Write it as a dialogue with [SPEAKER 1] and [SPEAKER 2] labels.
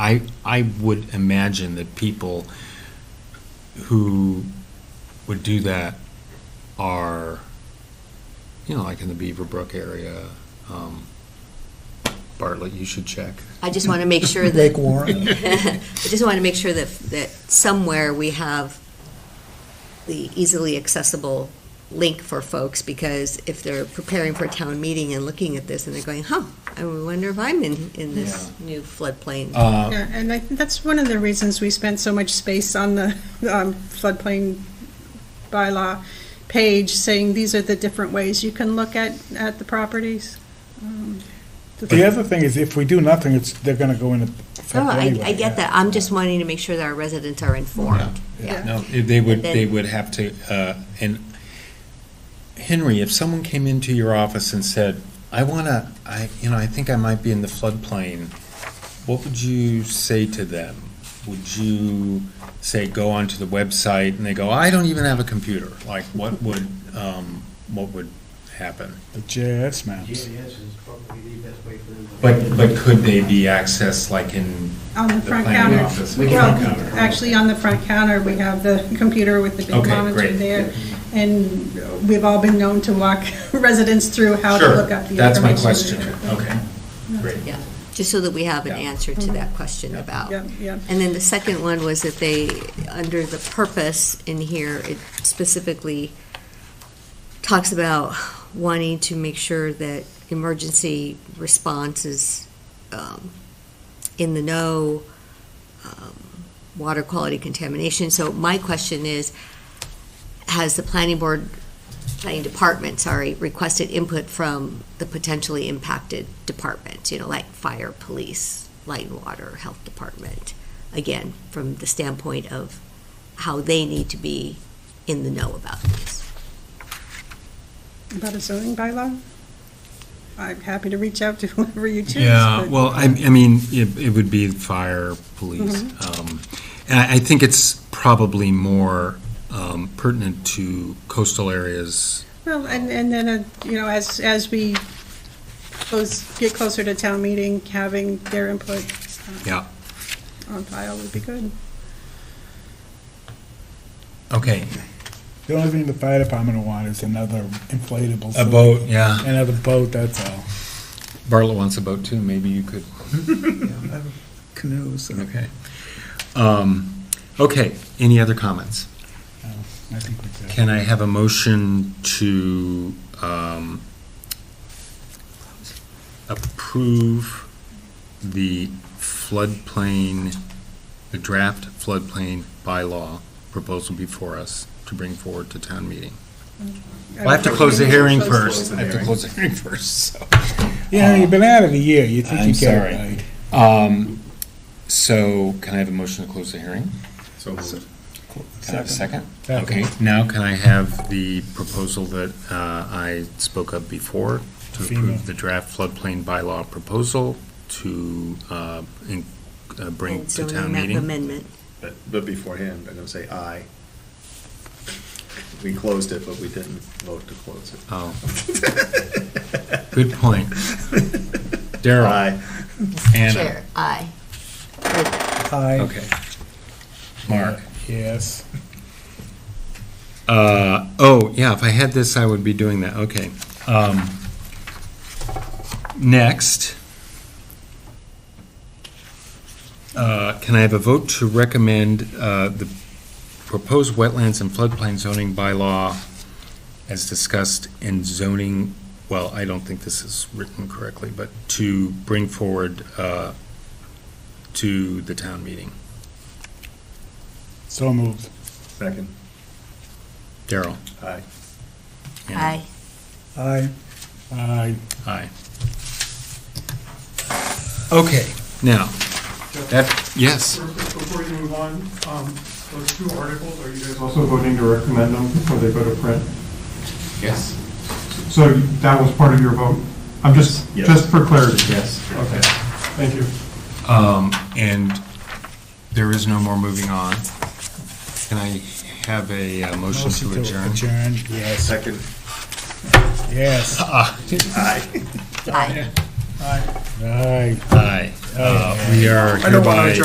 [SPEAKER 1] I, I would imagine that people who would do that are, you know, like in the Beaver Brook area, um, Bartlett, you should check.
[SPEAKER 2] I just want to make sure
[SPEAKER 3] Lake
[SPEAKER 2] that,
[SPEAKER 3] Warren.
[SPEAKER 2] I just want to make sure that, that somewhere we have the easily accessible link for folks, because if they're preparing for a town meeting and looking at this, and they're going, huh, I wonder if I'm in, in this new floodplain.
[SPEAKER 1] Uh,
[SPEAKER 4] Yeah, and I think that's one of the reasons we spent so much space on the um, floodplain bylaw page, saying these are the different ways you can look at, at the properties. Um,
[SPEAKER 3] The other thing is, if we do nothing, it's, they're gonna go in effect
[SPEAKER 2] No, Oh, I,
[SPEAKER 3] anyway,
[SPEAKER 2] I get
[SPEAKER 3] yeah.
[SPEAKER 2] that, I'm just wanting to make sure that our residents are informed.
[SPEAKER 4] Yeah.
[SPEAKER 1] No, if they would,
[SPEAKER 2] And then-
[SPEAKER 1] they would have to, uh, and Henry, if someone came into your office and said, I wanna, I, you know, I think I might be in the floodplain, what would you say to them? Would you say, go onto the website, and they go, I don't even have a computer? Like, what would, um, what would happen?
[SPEAKER 3] The JS maps.
[SPEAKER 5] GIS is probably the best way for them to.
[SPEAKER 1] But, but could they be accessed like in
[SPEAKER 4] On the
[SPEAKER 1] the
[SPEAKER 4] front
[SPEAKER 1] planning
[SPEAKER 4] counter.
[SPEAKER 1] office?
[SPEAKER 5] We can-
[SPEAKER 4] Well, actually, on the front counter, we have the computer with the big
[SPEAKER 1] Okay,
[SPEAKER 4] monitor
[SPEAKER 1] great.
[SPEAKER 4] there. And we've all been known to walk residents through how to look up the information.
[SPEAKER 1] Sure, that's my question, okay, great.
[SPEAKER 2] Yeah, just so that we have an
[SPEAKER 1] Yeah.
[SPEAKER 2] answer to that question about.
[SPEAKER 4] Yeah, yeah.
[SPEAKER 2] And then the second one was that they, under the purpose in here, it specifically talks about wanting to make sure that emergency response is um, in the know, um, water quality contamination. So my question is, has the planning board, planning department, sorry, requested input from the potentially impacted departments, you know, like fire, police, light and water, health department? Again, from the standpoint of how they need to be in the know about this.
[SPEAKER 4] About a zoning bylaw? I'm happy to reach out to whoever you choose.
[SPEAKER 1] Yeah,
[SPEAKER 4] but-
[SPEAKER 1] well, I, I mean, it, it would be fire, police. um, And I, I think it's probably more um, pertinent to coastal areas.
[SPEAKER 4] Well, and, and then, uh, you know, as, as we close, get closer to town meeting, having their input uh,
[SPEAKER 1] Yeah,
[SPEAKER 4] on file would be good.
[SPEAKER 1] okay.
[SPEAKER 3] The only thing the fire department will want is another inflatable.
[SPEAKER 1] A
[SPEAKER 3] suit.
[SPEAKER 1] boat, yeah.
[SPEAKER 3] Another boat, that's all.
[SPEAKER 1] Bartlett wants a boat too, maybe you could.
[SPEAKER 3] Canoes.
[SPEAKER 1] Okay. Um, Okay, any other comments?
[SPEAKER 3] I think we did.
[SPEAKER 1] Can I have a motion to um, approve the floodplain, the draft floodplain bylaw proposal before us to bring forward to town meeting? Well, I have to close the hearing first. I have to close the hearing first, so.
[SPEAKER 3] Yeah, you've been out of the year, you think
[SPEAKER 1] I'm
[SPEAKER 3] you get
[SPEAKER 1] sorry.
[SPEAKER 3] it right.
[SPEAKER 1] Um, So can I have a motion to close the hearing?
[SPEAKER 5] So moved.
[SPEAKER 1] Can I have a second?
[SPEAKER 3] Second.
[SPEAKER 1] Okay, now can I have the proposal that uh, I spoke of before to approve
[SPEAKER 3] FEMA.
[SPEAKER 1] the draft floodplain bylaw proposal to uh, in- uh, bring to
[SPEAKER 2] And zoning
[SPEAKER 1] town
[SPEAKER 2] map
[SPEAKER 1] meeting?
[SPEAKER 2] Amendment.
[SPEAKER 5] But, but beforehand, I'm gonna say aye. We closed it, but we didn't vote to close it.
[SPEAKER 1] Oh, good point. Daryl,
[SPEAKER 5] Aye.
[SPEAKER 1] Anna,
[SPEAKER 2] Chair, aye.
[SPEAKER 3] Aye.
[SPEAKER 1] okay. Mark?
[SPEAKER 3] Yes.
[SPEAKER 1] Uh, oh, yeah, if I had this, I would be doing that, okay. Um, Next. Uh, Can I have a vote to recommend uh, the proposed wetlands and floodplain zoning bylaw as discussed in zoning, well, I don't think this is written correctly, but to bring forward uh, to the town meeting?
[SPEAKER 3] So moved.
[SPEAKER 5] Second,
[SPEAKER 1] Daryl?
[SPEAKER 5] aye.
[SPEAKER 1] Anna?
[SPEAKER 2] Aye.
[SPEAKER 3] Aye. Aye.
[SPEAKER 1] Aye. Okay, now, that, yes,
[SPEAKER 6] Before you move on, um, those two articles, are you guys also voting to recommend them before they go to print?
[SPEAKER 5] Yes.
[SPEAKER 6] So that was part of your vote? I'm just,
[SPEAKER 5] Yes.
[SPEAKER 6] just for clarity.
[SPEAKER 5] Yes.
[SPEAKER 6] Okay, thank you.
[SPEAKER 1] um, and there is no more moving on. Can I have a uh, motion to adjourn?
[SPEAKER 3] Adjourn, yes,
[SPEAKER 5] Second,
[SPEAKER 3] yes.
[SPEAKER 1] Ah,
[SPEAKER 5] aye.
[SPEAKER 2] Aye.
[SPEAKER 1] Aye. Aye. We are
[SPEAKER 3] I don't wanna
[SPEAKER 1] hereby.